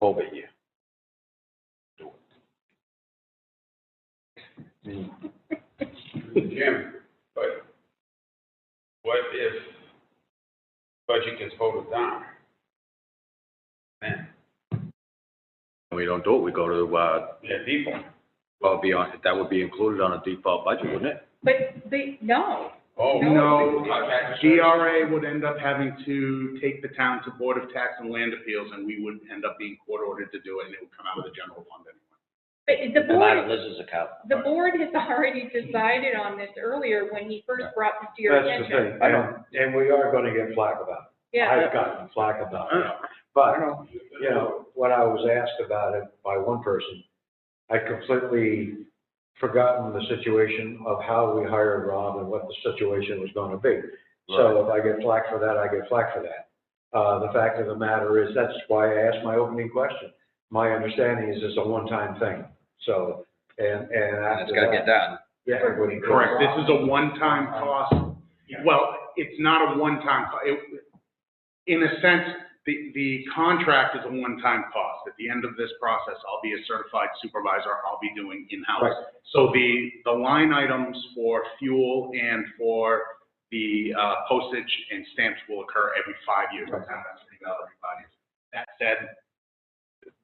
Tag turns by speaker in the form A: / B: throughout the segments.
A: over you. Do it. Mm.
B: Jim, but what if budget gets voted down? Then,
C: we don't do it, we go to, uh,
B: yeah, people,
C: well, be on, that would be included on a default budget, wouldn't it?
D: But they, no,
B: oh.
E: No,
B: okay.
E: DRA would end up having to take the town to Board of Tax and Land Appeals, and we would end up being court ordered to do it, and it would come out of the general fund anyway.
D: but the
C: Come out of
D: board,
C: Liz's account.
D: the board has already decided on this earlier when he first brought this to your
A: That's the
D: attention.
A: thing, I don't, and we are gonna get flack about it.
D: Yeah,
A: I've gotten flack about it. But, you know, when I was asked about it by one person, I'd completely forgotten the situation of how we hired Rob and what the situation was gonna be. So if I get flack for that, I get flack for that. Uh, the fact of the matter is, that's why I asked my opening question. My understanding is it's a one-time thing, so, and, and
C: And it's
A: after
C: gotta
A: that.
C: get done.
A: yeah, it wouldn't-
E: Correct, this is a one-time cost. Well, it's not a one-time, co- it, in a sense, the, the contract is a one-time cost. At the end of this process, I'll be a certified supervisor, I'll be doing
A: Right.
E: in-house. So the, the line items for fuel and for the uh, postage and stamps will occur every five years. That's every five years. That said,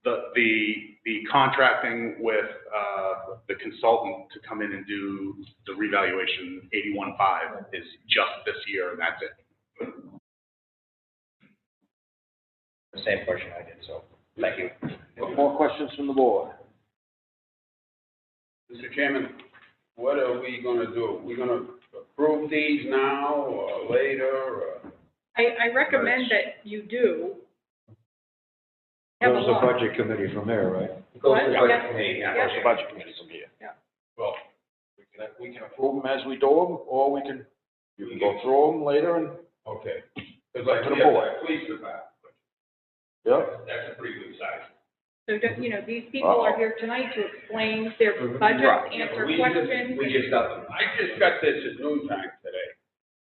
E: the, the, the contracting with, uh, the consultant to come in and do the revaluation eighty-one five is just this year and that's it.
F: the same question I did, so, thank you.
A: More questions from the board?
B: Mr. Chairman, what are we gonna do? We gonna approve these now or later or?
D: I, I recommend that you do. Have a
A: Goes to
D: look.
A: budget committee from there, right?
D: What?
F: Goes to
D: Yeah.
F: budget committee, yeah.
D: Yeah.
F: goes to
G: budget committee from here.
B: Well,
G: We can, we can approve them as we do them, or we can, you can go through them later and,
B: okay. Cause like,
G: To the
B: we have
G: board.
B: that police department,
G: yeah.
B: that's a pretty good size.
D: So, don't- you know, these people are here tonight to explain their budgets, answer
B: We just-
D: questions.
B: We just got them. I just got this at noontime today,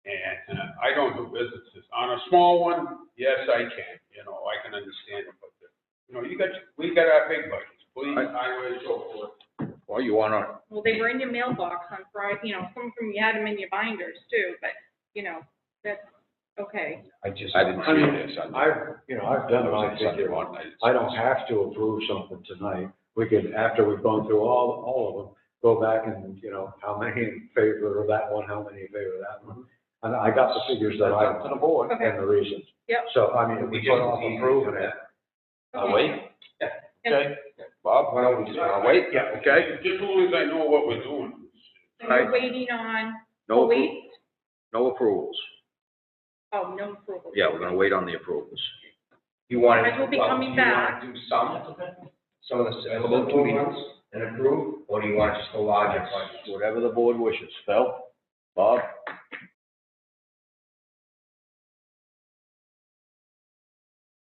B: and uh, I don't do businesses. On a small one, yes, I can, you know, I can understand it, but, the- you know, you got, we got our big budgets, police, highway, and so forth.
C: Well, you wanna,
D: Well, they were in your mailbox on Friday, you know, some of them you had them in your binders too, but, you know, that's, okay.
F: I just.
C: I didn't
A: I mean,
C: see this. I-
A: I've, you know, I've done my figure on I don't have to approve something tonight. We could, after we've gone through all, all of them, go back and, you know, how many in favor of that one, how many in favor of that one. And I got the figures that I
G: Up to the board.
D: Okay.
A: and the reasons.
D: Yep.
A: So, I mean, if we put off approving it,
C: Uh,
D: okay.
G: Okay, Bob, why don't we just wanna wait?
C: Yeah, okay.
B: Just as long as I know what we're doing.
D: So you're waiting on,
C: No,
D: oh,
C: appro-
D: wait,
C: no approvals.
D: oh, no approval.
C: Yeah, we're gonna wait on the approvals.
F: You want to.
D: Guys will be
F: well,
D: coming
F: do you wanna
D: back.
F: Do some, some of the available to meetings and approve, or do you want just the larger budget?
C: Whatever the board wishes. Phil? Bob?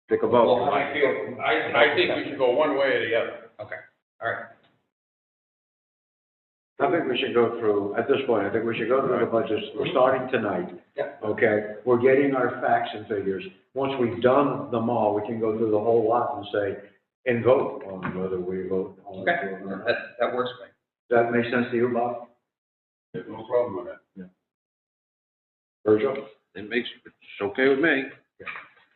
C: Take a
F: Well,
C: vote.
F: I feel,
B: I, I think we should go one way or the other.
F: all right,
A: I think we should go through, at this point, I think we should go through the budgets, we're starting tonight.
F: Yeah.
A: Okay, we're getting our facts and figures. Once we've done them all, we can go through the whole lot and say, and vote on whether we vote on.
F: Okay.
A: it or
F: that,
A: not.
F: that works for me.
A: Does that make sense to you, Bob?
B: There's no problem with it.
A: Virgil?
C: It makes, it's okay with me.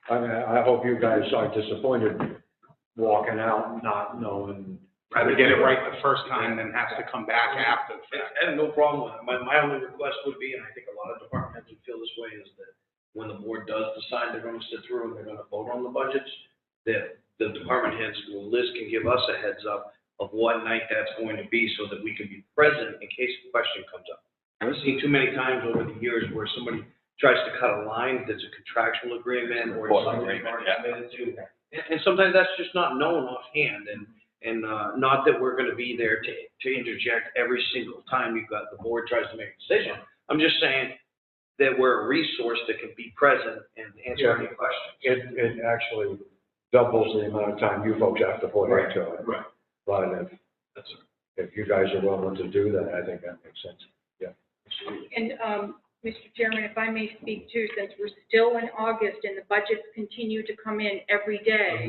A: I mean, I hope you guys are disappointed walking out not knowing.
E: Rather get it right the first time than has to come back after the fact.
H: I have no problem with it. My, my only request would be, and I think a lot of department heads would feel this way, is that when the board does decide they're gonna sit through and they're gonna vote on the budgets, that the department heads, well, Liz can give us a heads up of what night that's going to be so that we can be present in case a question comes up. I've seen too many times over the years where somebody tries to cut a line that's a contractual agreement or
G: Support
H: something they've
G: agreement,
H: already
G: yeah.
H: committed to. And, and sometimes that's just not known offhand, and, and, uh, not that we're gonna be there to, to interject every single time you've got, the board tries to make a decision. I'm just saying that we're a resource that can be present and answer any questions.
A: It, it actually doubles the amount of time you folks have to put into it.
E: Right.
A: But if,
H: That's all.
A: if you guys are willing to do that, I think that makes sense.
D: And, um, Mr. Chairman, if I may speak too, since we're still in August and the budgets continue to come in every day,